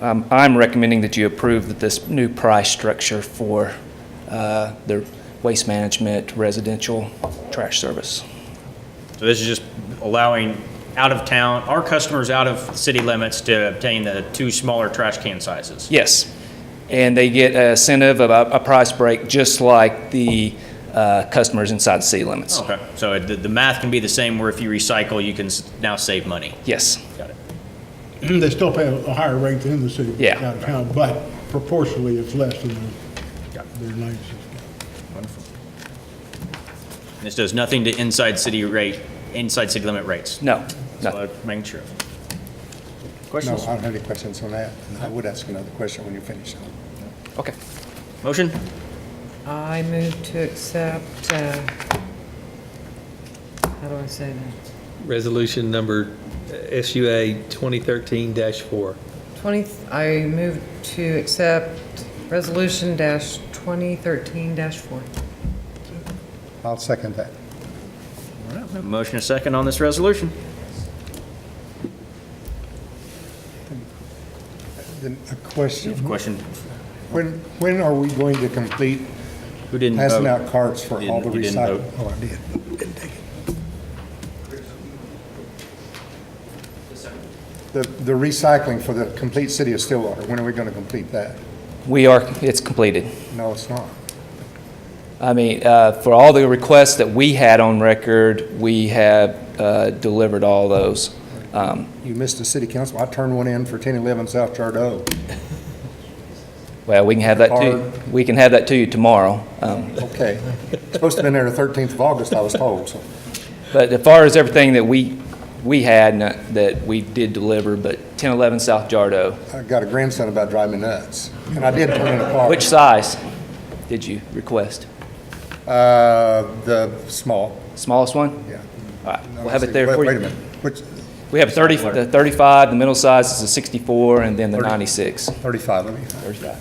Um, I'm recommending that you approve that this new price structure for uh, the waste management residential trash service. So this is just allowing out of town, our customers out of city limits to obtain the two smaller trash can sizes. Yes. And they get a incentive of a a price break, just like the uh, customers inside the city limits. Okay, so the, the math can be the same where if you recycle, you can s- now save money. Yes, Got it. They still pay a higher rate than in the city. Yeah. Out of town, but proportionally, it's less than Got it. the- their nights. Wonderful. This does nothing to inside city rate, inside city limit rates. no, So no. I'm Making sure. No, I don't have any questions on that. I would ask another question when you finish. Okay. Motion? I move to accept, uh, how do I say that? Resolution number uh, SUA 2013-4. 20, I move to accept resolution dash 2013 dash 4. I'll second that. All right, we have a Motion a second on this resolution. Then a question, Question, when, when are we going to complete who didn't vote? passing out cards for all the Didn't- you didn't recycling? vote. Oh, I did. The, the recycling for the complete city of Stillwater, when are we going to complete that? We are, it's completed. No, it's not. I mean, uh, for all the requests that we had on record, we have uh, delivered all those. Um, You missed the city council. I turned one in for 1011 South Chardot. Well, we can have that to, we can have that to you tomorrow. Um, Okay. Supposed to have been there the 13th of August, I was told, so. But as far as everything that we, we had, and that- that we did deliver, but 1011 South Jardo, I got a grandson about driving me nuts, and I did turn in a car. which size did you request? Uh, the small, Smallest one? yeah. All right, we'll have it there Wait- for you. Wait a minute, which, We have 30, the 35, the middle size is a 64, and then the 96. 35, let me, 35.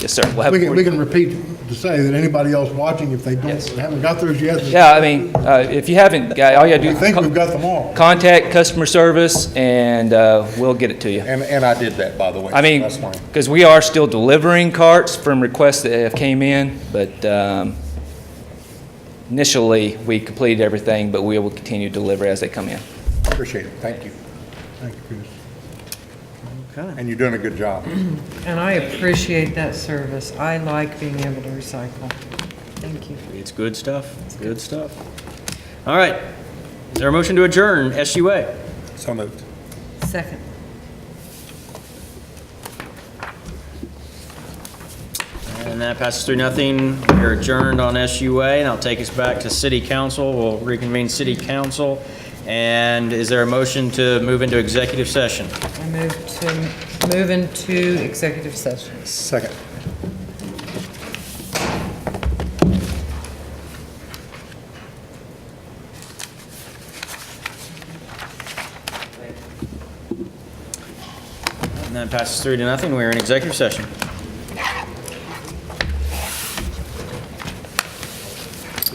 Yes, sir. We'll have We it can, for we you. can repeat to say that anybody else watching, if they don't, Yes. haven't got theirs yet, Yeah, I mean, uh, if you haven't, got- all you gotta do. I think we've got them all. Contact customer service, and uh, we'll get it to you. and, and I did that, by the way. I mean, That's fine. because we are still delivering carts from requests that have came in, but um, initially, we completed everything, but we will continue to deliver as they come in. Appreciate it, thank you. Thank you, Chris. And you're doing a good job. And I appreciate that service. I like being able to recycle. Thank you. It's good stuff, good stuff. All right, is there a motion to adjourn SUA? So moved. Second. And that passes through nothing. We're adjourned on SUA, and I'll take us back to city council. We'll reconvene city council. And is there a motion to move into executive session? I move to, move into executive session. Second. And that passes through to nothing. We're in executive session.